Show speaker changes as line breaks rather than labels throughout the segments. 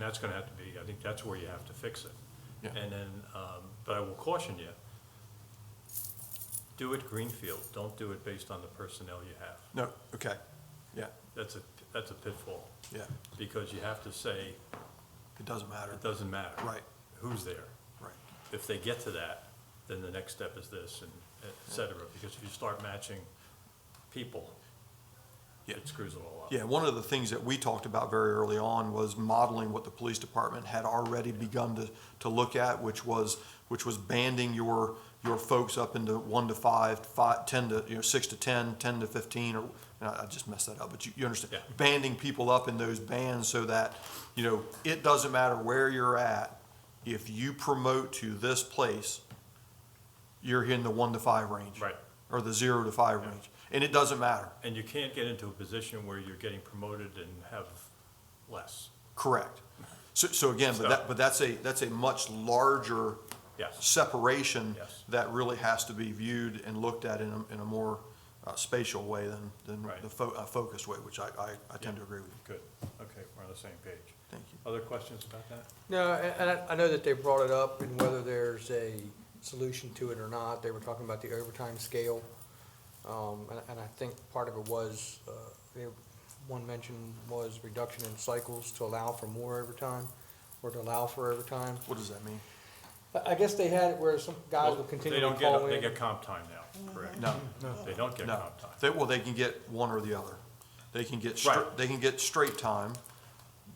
that's gonna have to be, I think that's where you have to fix it.
Yeah.
And then, um, but I will caution you, do it greenfield, don't do it based on the personnel you have.
No, okay, yeah,
That's a, that's a pitfall,
yeah,
because you have to say,
it doesn't matter,
it doesn't matter.
Right.
Who's there?
right,
If they get to that, then the next step is this and et cetera, because if you start matching people,
yeah.
it screws it all up.
Yeah, one of the things that we talked about very early on was modeling what the police department had already begun to, to look at, which was, which was banding your, your folks up into one to five, five, ten to, you know, six to ten, ten to fifteen, or, and I I just messed that up, but you, you understand.
Yeah.
Banding people up in those bands so that, you know, it doesn't matter where you're at, if you promote to this place, you're in the one to five range.
Right.
Or the zero to five range, and it doesn't matter,
And you can't get into a position where you're getting promoted and have less.
Correct. So, so again, but that, but that's a, that's a much larger
Yes,
separation
Yes.
that really has to be viewed and looked at in a, in a more uh, spatial way than, than
Right.
the fo- uh, focused way, which I, I, I tend to agree with you.
good. Okay, we're on the same page.
Thank you.
Other questions about that?
No, and and I- I know that they brought it up and whether there's a solution to it or not. They were talking about the overtime scale. Um, And and I think part of it was, uh, they- one mention was reduction in cycles to allow for more overtime or to allow for overtime.
What does that mean?
I I guess they had it where some guys will continue
They
to
don't get,
call
they
in.
get comp time now, correct?
No,
They don't get
no.
comp time.
They, well, they can get one or the other. They can get, str-
Right.
they can get straight time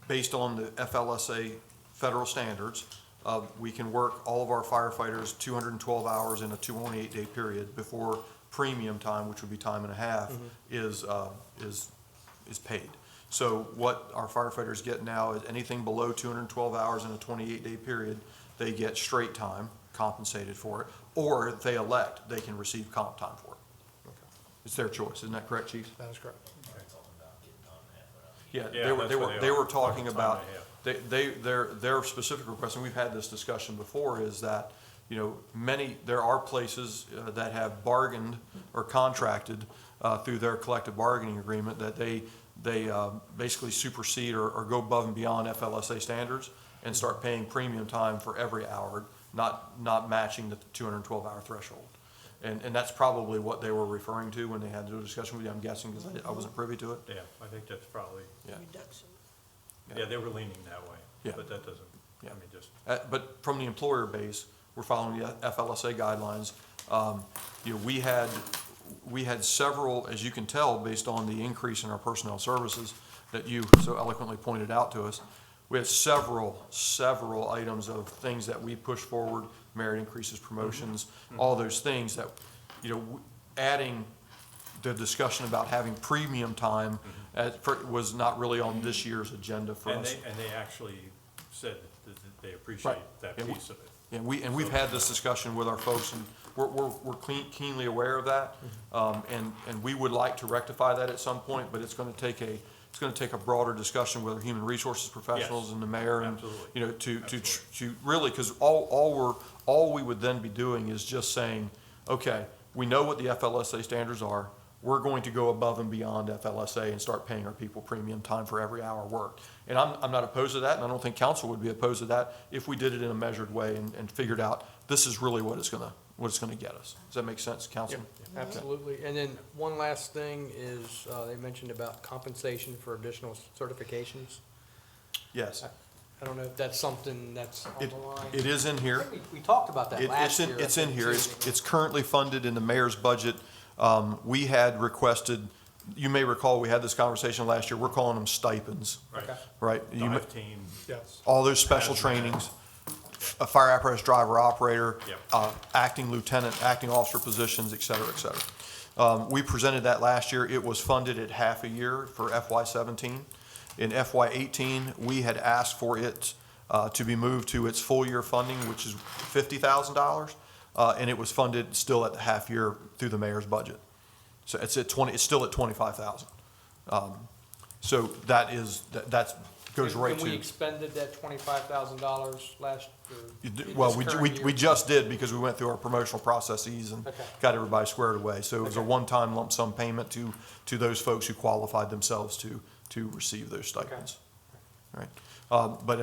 based on the FLSA federal standards. Uh, we can work all of our firefighters two hundred and twelve hours in a two twenty-eight day period before premium time, which would be time and a half,
Mm-hmm.
is, uh, is, is paid. So what our firefighters get now is anything below two hundred and twelve hours in a twenty-eight day period, they get straight time compensated for it, or if they elect, they can receive comp time for it. It's their choice, isn't that correct, chief?
That is correct.
Yeah,
Yeah,
they were,
that's
they
what
were,
they
they
are.
were talking
Fucking
about,
time
they, they, their, their specific request, and we've had this discussion before, is that, you know, many, there are places uh, that have bargained or contracted uh, through their collective bargaining agreement that they, they uh, basically supersede or, or go above and beyond FLSA standards and start paying premium time for every hour, not, not matching the two hundred and twelve hour threshold. And, and that's probably what they were referring to when they had the discussion with you, I'm guessing, because I wasn't privy to it.
Yeah, I think that's probably,
Yeah.
reduction.
Yeah.
yeah, they were leaning that way.
Yeah.
But that doesn't, I
Yeah.
mean, just,
Uh, But from the employer base, we're following the FLSA guidelines. Um, You know, we had, we had several, as you can tell, based on the increase in our personnel services that you so eloquently pointed out to us, we had several, several items of things that we pushed forward, merit increases, promotions,
Mm-hmm.
all those things that, you know, w- adding the discussion about having premium time at- for- was not really on this year's agenda for us.
Mm-hmm. and they, and they actually said that that they appreciate
Right.
that
Yeah, we-
piece of it.
And we, and we've had this discussion with our folks, and we're, we're, we're clean- keenly aware of that. Um, and, and we would like to rectify that at some point, but it's gonna take a, it's gonna take a broader discussion with our human resources professionals and the mayor and,
absolutely.
you know, to, to, tr-
Absolutely.
to really, cause all, all we're, all we would then be doing is just saying, okay, we know what the FLSA standards are. We're going to go above and beyond FLSA and start paying our people premium time for every hour worked. And I'm, I'm not opposed to that, and I don't think council would be opposed to that if we did it in a measured way and, and figured out this is really what it's gonna, what it's gonna get us. Does that make sense, council?
Absolutely. And then one last thing is, uh, they mentioned about compensation for additional certifications.
Yes.
I don't know if that's something that's on
It,
the line.
it is in
I
here.
think We we talked about that
It- It's
last
in,
year. I
it's in
think,
here.
too.
It's, it's currently funded in the mayor's budget. Um, we had requested, you may recall, we had this conversation last year. We're calling them stipends,
Right.
right? You may-
Dive team,
Yes.
All those special trainings, a fire apparatus driver operator,
Yep.
uh, acting lieutenant, acting officer positions, et cetera, et cetera. Um, we presented that last year. It was funded at half a year for FY seventeen. In FY eighteen, we had asked for it, uh, to be moved to its full year funding, which is fifty thousand dollars. Uh, and it was funded still at the half year through the mayor's budget. So it's at twenty, it's still at twenty-five thousand. Um, so that is, that, that's, goes right to.
And we expended that twenty-five thousand dollars last,
You
or
do-
this
Well, we,
current
we,
year.
we just did because we went through our promotional processes and
Okay.
got everybody squared away. So it was a
Okay.
one-time lump sum payment to, to those folks who qualified themselves to, to receive those stipends. Right, um, but